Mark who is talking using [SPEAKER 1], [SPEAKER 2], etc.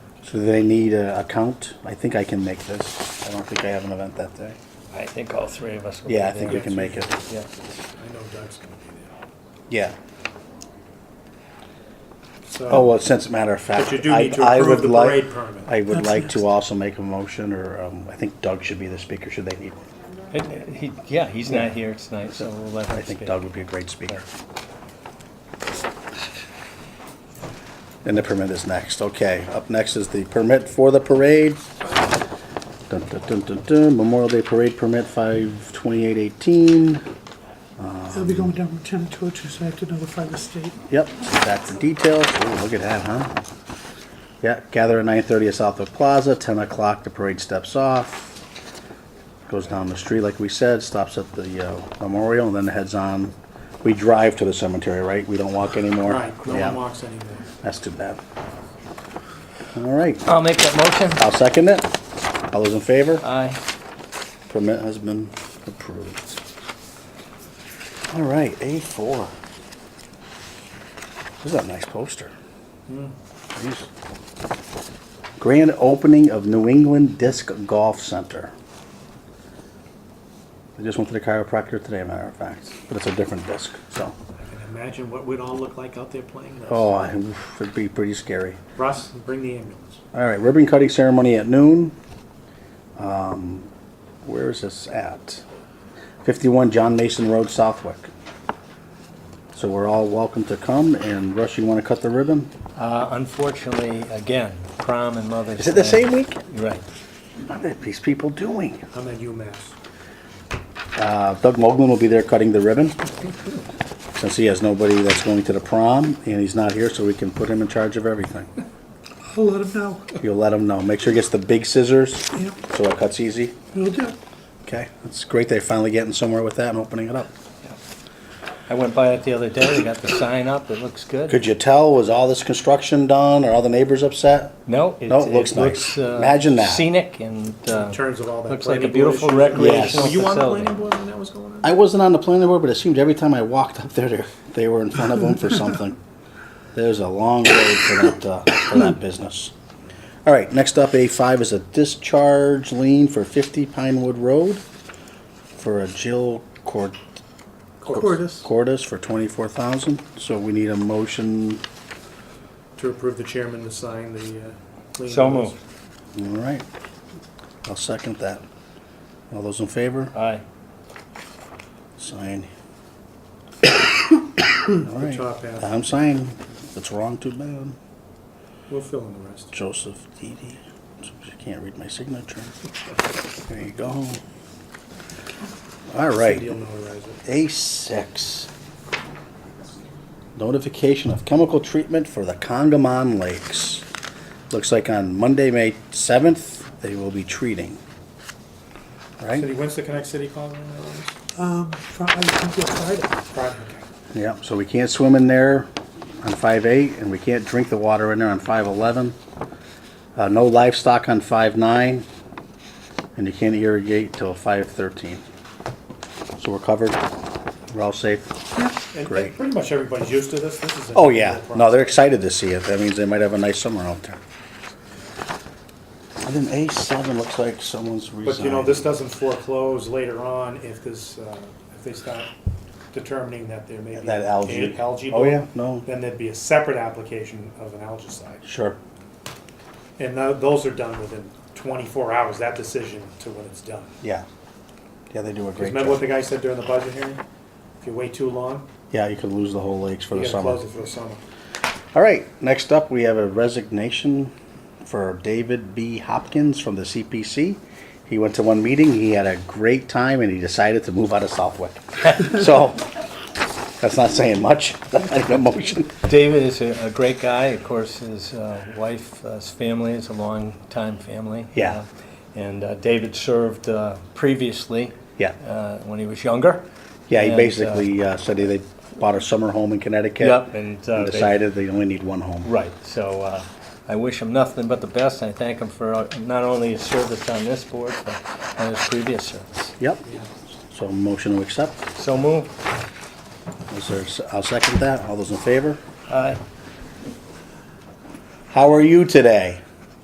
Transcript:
[SPEAKER 1] So they need a account? I think I can make this. I don't think I have an event that day.
[SPEAKER 2] I think all three of us will be there.
[SPEAKER 1] Yeah, I think we can make it.
[SPEAKER 2] Yeah.
[SPEAKER 3] I know Doug's gonna be
[SPEAKER 1] Yeah.
[SPEAKER 3] there. So-
[SPEAKER 1] Oh, well, since a matter of fact.
[SPEAKER 3] But you do need to
[SPEAKER 1] I- I
[SPEAKER 3] approve
[SPEAKER 1] would
[SPEAKER 3] the
[SPEAKER 1] like-
[SPEAKER 3] parade permit.
[SPEAKER 1] I would
[SPEAKER 3] That's
[SPEAKER 1] like
[SPEAKER 3] next.
[SPEAKER 1] to also make a motion, or um, I think Doug should be the speaker, should they need one.
[SPEAKER 2] It- he- Yeah, he's not here tonight, so we'll let him
[SPEAKER 1] I
[SPEAKER 2] speak.
[SPEAKER 1] think Doug would be a great speaker. And the permit is next, okay. Up next is the permit for the parade. Dun, dun, dun, dun, dun. Memorial Day Parade Permit 52818.
[SPEAKER 4] They'll be going down Route 10 to Orchard, so I have to notify the state.
[SPEAKER 1] Yep, back to details. Ooh, look at that, huh? Yeah, gather at nine thirty at Southwood Plaza, ten o'clock, the parade steps off. Goes down the street, like we said, stops at the uh, memorial, and then heads on. We drive to the cemetery, right? We don't walk anymore?
[SPEAKER 3] Right, no
[SPEAKER 1] Yeah,
[SPEAKER 3] one walks anywhere.
[SPEAKER 1] That's too bad. All right,
[SPEAKER 2] I'll make that motion.
[SPEAKER 1] I'll second it. All those in favor?
[SPEAKER 2] Aye.
[SPEAKER 1] Permit has been approved. All right, A4. This is a nice poster. Jeez. Grand opening of New England Disc Golf Center. I just went to the chiropractor today, matter of fact, but it's a different disc, so.
[SPEAKER 3] I can imagine what we'd all look like out there playing this.
[SPEAKER 1] Oh, I- oof, it'd be pretty scary.
[SPEAKER 3] Russ, bring the ambulance.
[SPEAKER 1] All right, ribbon cutting ceremony at noon. Um, Where is this at? 51 John Mason Road, Southwick. So we're all welcome to come, and Russ, you want to cut the ribbon?
[SPEAKER 2] Uh, Unfortunately, again, prom and Mother's Day.
[SPEAKER 1] Is it the same week?
[SPEAKER 2] You're Right.
[SPEAKER 1] What are these people doing?
[SPEAKER 3] I'm at UMass.
[SPEAKER 1] Uh, Doug Moglen will be there cutting the ribbon, since he has nobody that's going to the prom, and he's not here, so we can put him in charge of everything.
[SPEAKER 4] I'll let them know.
[SPEAKER 1] You'll let him know. Make sure he gets the big scissors,
[SPEAKER 4] Yep.
[SPEAKER 1] so it cuts easy.
[SPEAKER 4] Will do.
[SPEAKER 1] Okay, that's great. They're finally getting somewhere with that and opening it up.
[SPEAKER 2] I went by it the other day, they got the sign up, it looks good.
[SPEAKER 1] Could you tell, was all this construction done, are all the neighbors upset?
[SPEAKER 2] No, it
[SPEAKER 1] No, it
[SPEAKER 2] it
[SPEAKER 1] looks nice.
[SPEAKER 2] looks uh,
[SPEAKER 1] Imagine that.
[SPEAKER 2] scenic and uh,
[SPEAKER 3] In terms of all that.
[SPEAKER 2] looks like a
[SPEAKER 3] planning board
[SPEAKER 2] beautiful
[SPEAKER 3] issue.
[SPEAKER 2] recreational
[SPEAKER 3] Were you on the
[SPEAKER 2] facility.
[SPEAKER 3] planning board when that was going on?
[SPEAKER 1] I wasn't on the planning board, but it seemed every time I walked up there, they- they were in front of them for something. There's a long road for that, uh, for that business. All right, next up, A5 is a discharge lien for 50 Pinewood Road for a Jill Cord-
[SPEAKER 4] Cordis.
[SPEAKER 1] Cordes for 24,000. So we need a motion,
[SPEAKER 3] To approve the chairman to sign the. uh, planning
[SPEAKER 2] So
[SPEAKER 3] boards.
[SPEAKER 2] moved.
[SPEAKER 1] all right. I'll second that. All those in favor?
[SPEAKER 2] Aye.
[SPEAKER 1] Sign. Alright,
[SPEAKER 3] top half.
[SPEAKER 1] I'm signing. If it's wrong, too bad.
[SPEAKER 3] We'll fill in the rest.
[SPEAKER 1] Joseph Didi. She can't read my signature. There you go.
[SPEAKER 3] Cindy
[SPEAKER 1] Alright,
[SPEAKER 3] will notarize it.
[SPEAKER 1] A six. Notification of chemical treatment for the Congamon Lakes. Looks like on Monday, May seventh, they will be treating.
[SPEAKER 3] Cindy,
[SPEAKER 1] Right?
[SPEAKER 3] when's the Connect City call? on that one?
[SPEAKER 4] Um, Fri- I think it's Friday.
[SPEAKER 3] Friday, okay.
[SPEAKER 1] Yeah, so we can't swim in there on five eight, and we can't drink the water in there on five eleven. Uh, no livestock on five nine, and you can't irrigate till five thirteen. So we're covered, we're all safe.
[SPEAKER 3] And-
[SPEAKER 1] Great.
[SPEAKER 3] And pretty much everybody's used to this. This is. a
[SPEAKER 1] Oh, yeah,
[SPEAKER 3] normal
[SPEAKER 1] no,
[SPEAKER 3] process.
[SPEAKER 1] they're excited to see it, that means they might have a nice summer out there. And then A seven looks like someone's
[SPEAKER 3] But you know,
[SPEAKER 1] resigned.
[SPEAKER 3] this doesn't foreclose later on if this, uh, if they start determining that there may be.
[SPEAKER 1] That algae.
[SPEAKER 3] a- Algae.
[SPEAKER 1] Oh, yeah,
[SPEAKER 3] bloom,
[SPEAKER 1] no,
[SPEAKER 3] Then there'd be a separate application of an algicide.
[SPEAKER 1] sure,
[SPEAKER 3] And tho- those are done within twenty-four hours, that decision to when it's done.
[SPEAKER 1] yeah. Yeah, they do a
[SPEAKER 3] 'Cause
[SPEAKER 1] great
[SPEAKER 3] remember what
[SPEAKER 1] job.
[SPEAKER 3] the guy said during the budget hearing? If you wait too long,
[SPEAKER 1] Yeah, you could lose the whole lakes for
[SPEAKER 3] you
[SPEAKER 1] the
[SPEAKER 3] gotta
[SPEAKER 1] summer.
[SPEAKER 3] close it for the summer.
[SPEAKER 1] All right, next up, we have a resignation for David B. Hopkins from the CPC. He went to one meeting, he had a great time, and he decided to move out of Southwick. So, that's not saying much, that's not even a motion.
[SPEAKER 2] David is a, a great guy. Of course, his uh, wife, uh, his family is a long time family.
[SPEAKER 1] Yeah.
[SPEAKER 2] Uh, and uh, David served uh, previously.
[SPEAKER 1] Yeah.
[SPEAKER 2] Uh, when he was younger.
[SPEAKER 1] Yeah, he
[SPEAKER 2] And, uh,
[SPEAKER 1] basically uh, said they bought a summer home in Connecticut.
[SPEAKER 2] Yep, and, uh, they-
[SPEAKER 1] Decided they only need one home.
[SPEAKER 2] Right, so uh, I wish him nothing but the best, and I thank him for uh, not only his service on this board, but on his previous service.
[SPEAKER 1] Yep, so motion to accept.
[SPEAKER 2] So moved.
[SPEAKER 1] Is there, s- I'll second that, all those in favor?
[SPEAKER 2] Aye.
[SPEAKER 1] How are you today?